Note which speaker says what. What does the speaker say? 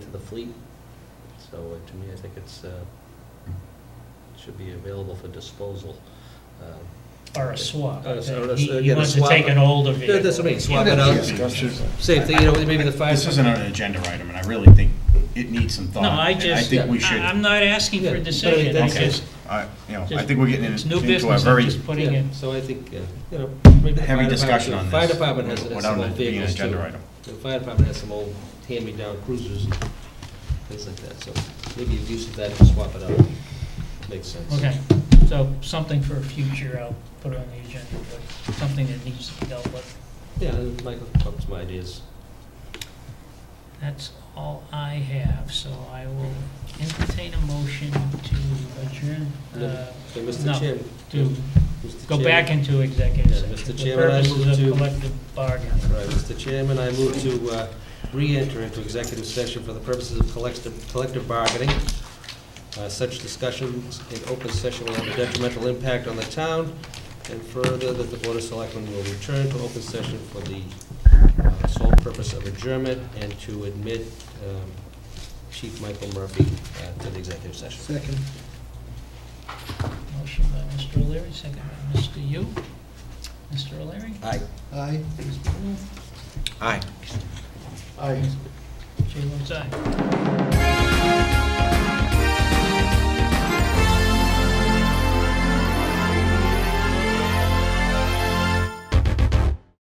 Speaker 1: for the fleet. So uh, to me, I think it's, uh, should be available for disposal. Um,
Speaker 2: Or a swap.
Speaker 1: Uh, so that's-
Speaker 2: He he
Speaker 1: again, a
Speaker 2: wants to
Speaker 1: swap.
Speaker 2: take an older
Speaker 1: Yeah,
Speaker 2: vehicle.
Speaker 1: That's what I mean, swap
Speaker 3: Yeah,
Speaker 1: it out.
Speaker 3: that's
Speaker 2: uh,
Speaker 3: discussion.
Speaker 1: Same thing, you know, maybe the fire.
Speaker 3: This isn't an agenda item, and I really think it needs some thought.
Speaker 2: No, I
Speaker 3: and
Speaker 2: just,
Speaker 3: think we
Speaker 2: I-
Speaker 3: should,
Speaker 2: I'm not asking for
Speaker 1: Yeah,
Speaker 2: a
Speaker 1: but I mean,
Speaker 2: decision, I
Speaker 1: that's
Speaker 3: okay,
Speaker 2: just,
Speaker 3: I- you know, I
Speaker 2: just-
Speaker 3: think we're getting
Speaker 2: it's new
Speaker 3: in- into a
Speaker 2: business, I'm
Speaker 3: very
Speaker 2: just putting
Speaker 1: Yeah,
Speaker 2: in.
Speaker 1: So I think, uh, you know. maybe the
Speaker 3: heavy
Speaker 1: fire
Speaker 3: discussion
Speaker 1: department-
Speaker 3: on this.
Speaker 1: Fire department has has
Speaker 3: without
Speaker 1: some old
Speaker 3: it being an
Speaker 1: vehicles too.
Speaker 3: agenda item.
Speaker 1: The fire department has some old hand-me-down cruisers and things like that, so maybe you use that to swap it out. Makes sense.
Speaker 2: Okay, so something for future, I'll put on the agenda, but something that needs to be dealt with.
Speaker 1: Yeah, and Michael, that's my ideas.
Speaker 2: That's all I have, so I will entertain a motion to adjourn, uh,
Speaker 1: So,
Speaker 2: no,
Speaker 1: Mr. Chairman.
Speaker 2: to
Speaker 1: Mr.
Speaker 2: go
Speaker 1: Chairman-
Speaker 2: back into executive
Speaker 1: Yeah,
Speaker 2: session.
Speaker 1: Mr.
Speaker 2: for
Speaker 1: Chairman, I
Speaker 2: purposes
Speaker 1: move
Speaker 2: of
Speaker 1: to-
Speaker 2: Collective bargaining.
Speaker 1: All right, Mr. Chairman, I move to uh, re-enter into executive session for the purposes of collective collective bargaining. Uh, Such discussions in open session will have a detrimental impact on the town, and further, that the Board of Selectmen will return to open session for the uh, sole purpose of adjournment and to admit um, Chief Michael Murphy uh, to the executive session.
Speaker 4: Second.
Speaker 2: Motion by Mr. O'Leary, second by Mr. Yu. Mr. O'Leary?
Speaker 1: Aye.
Speaker 4: Aye.
Speaker 2: Mr. Wu?
Speaker 1: Aye.
Speaker 4: Aye.
Speaker 2: Chair votes aye.